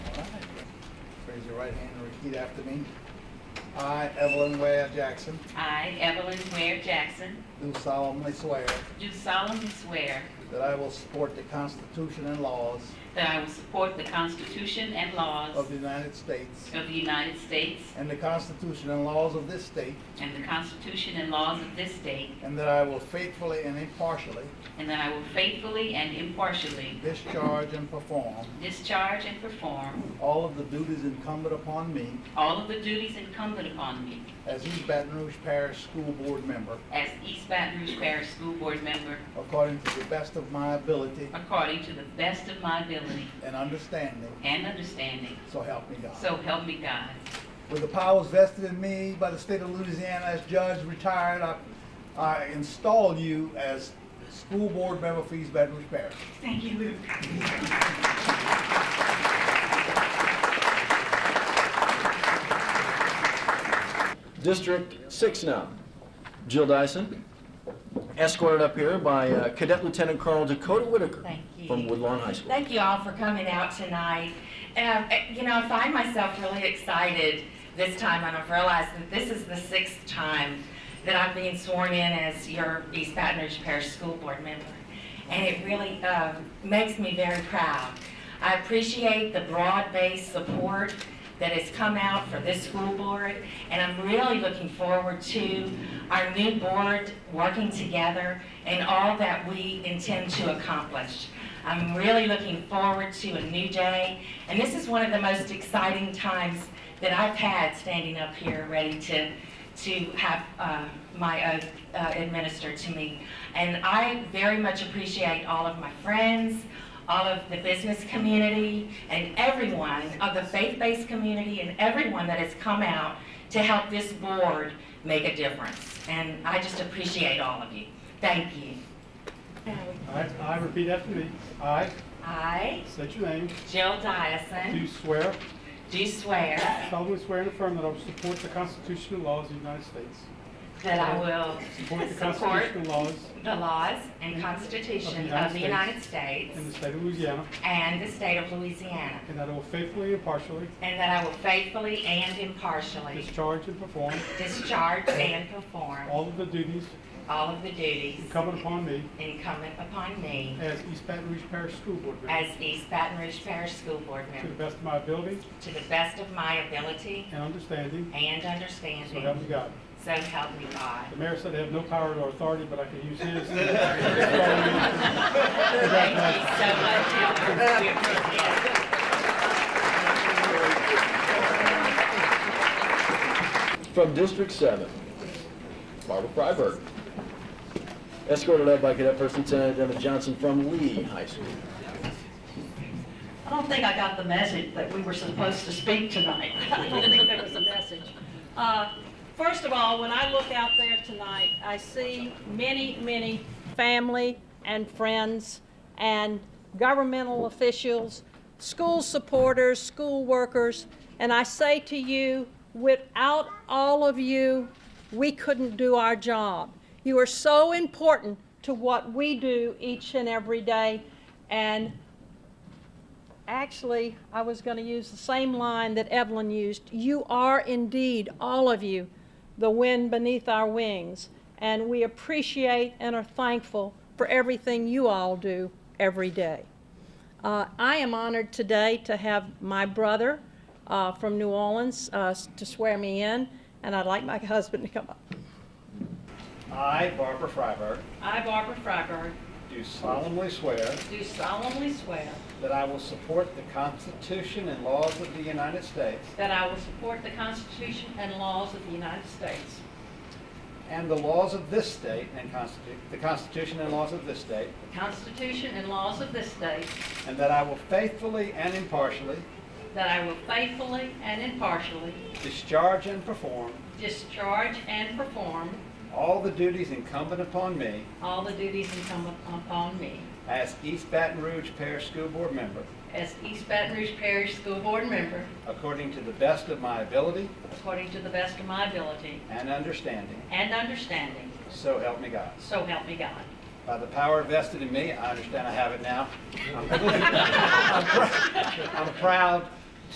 Raise your right hand and repeat after me. I, Evelyn Ware Jackson, I, Evelyn Ware Jackson, do solemnly swear do solemnly swear that I will support the Constitution and laws that I will support the Constitution and laws of the of United States the United States and the Constitution and laws of this state, and the Constitution and laws of this state, and that I will faithfully and impartially and that I will faithfully and impartially discharge and perform discharge and perform all of the duties incumbent upon me all of the duties incumbent upon me as East Baton Rouge Parish School Board member as East Baton Rouge Parish School Board member according to the best of my ability according to the best of my ability and understanding, and understanding, so help me God. so help me God. With the powers vested in me by the state of Louisiana as judge retired, I, I install you as school board member for East Baton Rouge Parish. Thank you, Luke. District 6 now. Jill Dyson, escorted up here by uh, Cadet Lieutenant Colonel Dakota Whitaker. Thank you. From Woodlawn High School. Thank you all for coming out tonight. Um, eh, You know, I find myself really excited this time, and I've realized that this is the sixth time that I've been sworn in as your East Baton Rouge Parish School Board member. And it really um, makes me very proud. I appreciate the broad-based support that has come out for this school board, and I'm really looking forward to our new board working together and all that we intend to accomplish. I'm really looking forward to a new day, and this is one of the most exciting times that I've had standing up here, ready to, to have uh, my oath uh, administered to me. And I very much appreciate all of my friends, all of the business community and everyone of the faith-based community and everyone that has come out to help this board make a difference. And I just appreciate all of you. Thank you. I, I repeat after me. I, I, state your name, Jill do Dyson, swear, do swear solemnly swear and affirm that I will support the Constitution and laws of the United States. that I will Support the support Constitution and laws the laws and Constitution of the United States in the state of Louisiana, and the state of Louisiana, and that I will faithfully and impartially and that I will faithfully and impartially discharge and perform discharge and perform all of the duties all of the duties incumbent upon me incumbent upon me as East Baton Rouge Parish School Board member as East Baton Rouge Parish School Board to the member best of my ability to the best of my ability and understanding, and so help me understanding. God. So help me God. The mayor said I have no power or authority, but I can use his. Congratulations. Thank you so much, Heather. We appreciate it. From District 7, Barbara Freiberg, escorted up by Cadet First Lieutenant Emma Johnson from Lee High School. I don't think I got the message that we were supposed to speak tonight. I don't think there was a message. Uh, First of all, when I look out there tonight, I see many, many family and friends and governmental officials, school supporters, school workers, and I say to you, without all of you, we couldn't do our job. You are so important to what we do each and every day, and actually, I was going to use the same line that Evelyn used. You are indeed, all of you, the wind beneath our wings. And we appreciate and are thankful for everything you all do every day. Uh, I am honored today to have my brother uh, from New Orleans uh, to swear me in, and I'd like my husband to come up. I, Barbara Freiberg, I, Barbara Freiberg, do solemnly swear do solemnly swear that I will support the Constitution and laws of the United States that I will support the Constitution and laws of the United States and the laws of this state and constitu- the Constitution and laws of this state, The Constitution and laws of this state, and that I will faithfully and impartially that I will faithfully and impartially discharge and perform discharge and perform all the duties incumbent upon me all the duties incumbent upon me as East Baton Rouge Parish School Board member as East Baton Rouge Parish School Board member according to the best of my ability according to the best of my ability and understanding, and understanding, so help me God. so help me God. By Uh, the power vested in me, I understand I have it now. I'm I'm proud